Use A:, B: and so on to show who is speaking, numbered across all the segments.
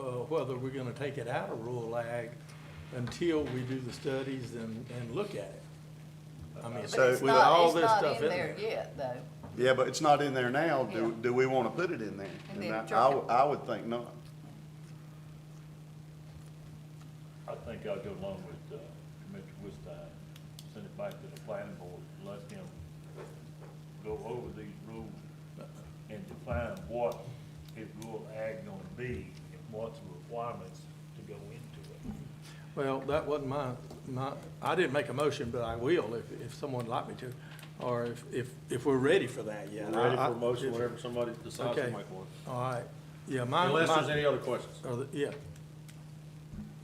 A: uh, whether we're gonna take it out of rural ag until we do the studies and, and look at it. I mean, with
B: But it's not-
A: all
B: it's
A: this
B: not
A: stuff in there.
B: Yet, though.
C: Yeah, but it's not in there now. Do,
B: Yeah.
C: do we want to put it in there?
B: And then
C: I-
B: jerk
C: I,
B: it.
C: would- I would think not.
D: I think I'll go along with, uh, Commissioner Wistine, send it back to the planning board, let him go over these rules and define what his rural ag gonna be and what's the requirements to go into it.
A: Well, that wasn't my, my, I didn't make a motion, but I will if, if someone would like me to, or if, if, if we're ready for that yet.
E: Ready
A: I-
E: for
A: I-
E: a motion
A: if-
E: whenever somebody decides to
A: Okay. Oh.
E: make one.
A: All right, yeah, my.
E: Unless
A: my-
E: there's any other questions.
A: Or the, yeah.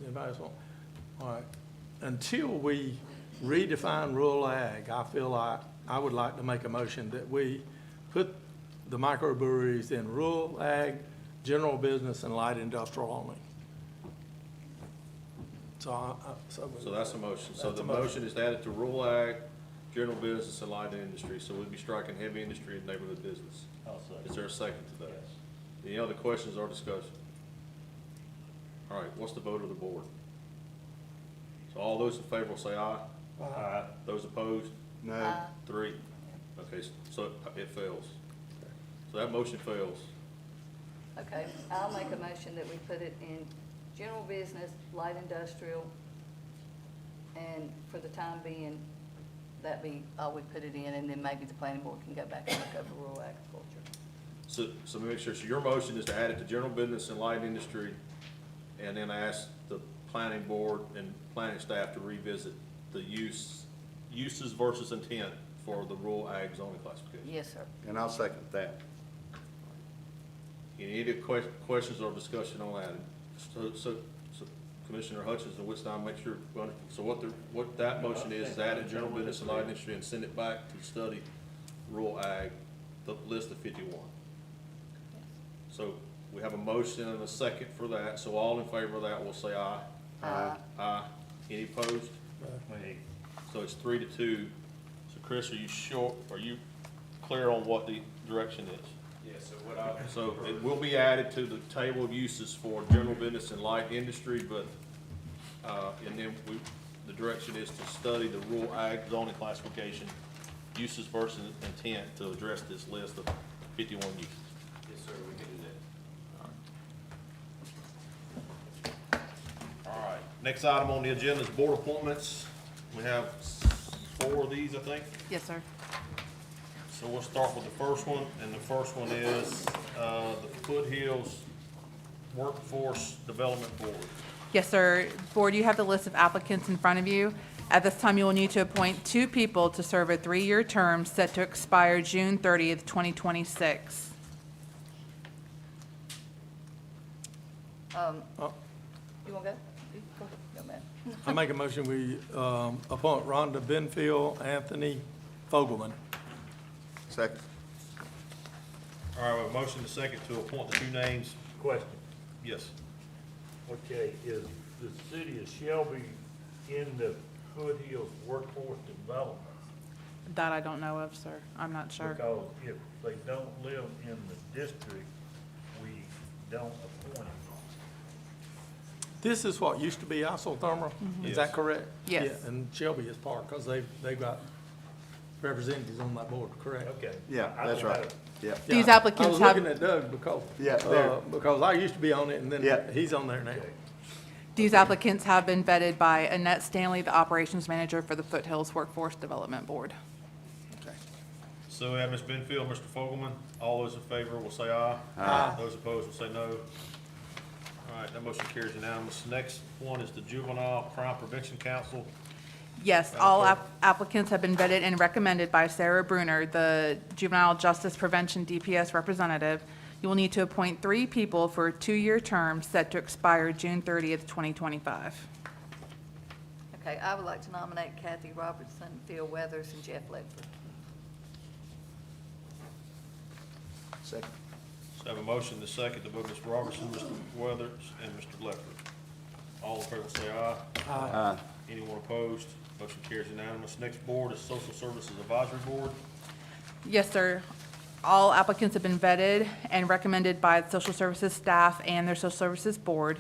A: Anybody else want? All right. Until we redefine rural ag, I feel like, I would like to make a motion that we put the microbreweries in rural ag, general business, and light industrial only. So I, I, so.
E: So that's a motion. So
A: That's a
E: the
A: motion.
E: motion is to add it to rural ag, general business, and light industry. So we'd be striking heavy industry and neighborhood business.
D: I'll say.
E: Is there a second to that?
D: Yes.
E: Any other questions or discussion? All right, what's the vote of the board? So all those in favor will say aye.
D: Aye.
E: Those opposed?
C: No.
E: Three. Okay, so it fails. So that motion fails.
B: Okay, I'll make a motion that we put it in general business, light industrial, and for the time being, that be, all we put it in, and then maybe the planning board can go back and look over rural agriculture.
E: So, so let me make sure, so your motion is to add it to general business and light industry, and then ask the planning board and planning staff to revisit the use, uses versus intent for the rural ag zoning classification.
B: Yes, sir.
C: And I'll second that.
E: Any other que- questions or discussion on that? So, so, so Commissioner Hutchins and Whitson, make sure, we under- so what the, what that motion is, is add it to general business and light industry and send it back to study rural ag, the list of fifty-one. So we have a motion and a second for that, so all in favor of that will say aye.
B: Aye.
E: Aye. Any opposed?
D: Wait.
E: So it's three to two. So Chris, are you sure, are you clear on what the direction is?
F: Yeah, so what I,
E: So it will be added to the table of uses for general business and light industry, but, uh, and then we, the direction is to study the rural ag zoning classification, uses versus intent to address this list of fifty-one uses.
F: yes, sir, we can do that.
E: All right, next item on the agenda is board appointments. We have s- four of these, I think.
B: Yes, sir.
E: So we'll start with the first one, and the first one is, uh, the Foothills Workforce Development Board.
G: Yes, sir. Board, you have the list of applicants in front of you. At this time, you will need to appoint two people to serve a three-year term set to expire June 30th, 2026.
B: You wanna go? You Go, go, ma'am.
A: Oh, I make a motion, we, um, appoint Rhonda Benfield, Anthony Fogelman.
C: Second.
E: All right, we have a motion to second to appoint the two names.
D: Question,
E: Yes.
D: okay, is the city of Shelby in the Foothills Workforce Development?
G: That I don't know of, sir. I'm not sure.
D: Because if they don't live in the district, we don't appoint them.
A: This is what used to be isothermal, is
E: Yes.
A: that correct?
G: Yes.
A: Yeah, And Shelby is part, because they've, they've got representatives on that board, correct?
D: Okay.
C: Yeah,
D: I
C: that's
D: don't
C: right.
D: know.
C: Yeah.
A: Yeah,
G: These applicants
A: I was
G: have-
A: looking at Doug because,
C: Yeah,
A: uh,
C: there.
A: because I used to be on it, and then
C: Yeah.
A: he's on there now.
G: These applicants have been vetted by Annette Stanley, the Operations Manager for the Foothills Workforce Development Board.
E: So we have Ms. Benfield, Mr. Fogelman. All those in favor will say aye. Aye. Those opposed will say no. All right, that motion carries unanimous. Next one is the Juvenile Crime Prevention Council.
G: Yes, all app- applicants have been vetted and recommended by Sarah Bruner, the Juvenile Justice Prevention DPS representative. You will need to appoint three people for a two-year term set to expire June 30th, 2025.
B: Okay, I would like to nominate Kathy Robertson, Phil Weathers, and Jeff Ledford.
C: Second.
E: So I have a motion to second to vote Mr. Robertson, Mr. Weathers, and Mr. Leffler. All in favor say aye.
C: Aye.
E: Anyone opposed? Motion carries unanimous. Next board is Social Services Advisory Board.
G: Yes, sir. All applicants have been vetted and recommended by the social services staff and their social services board.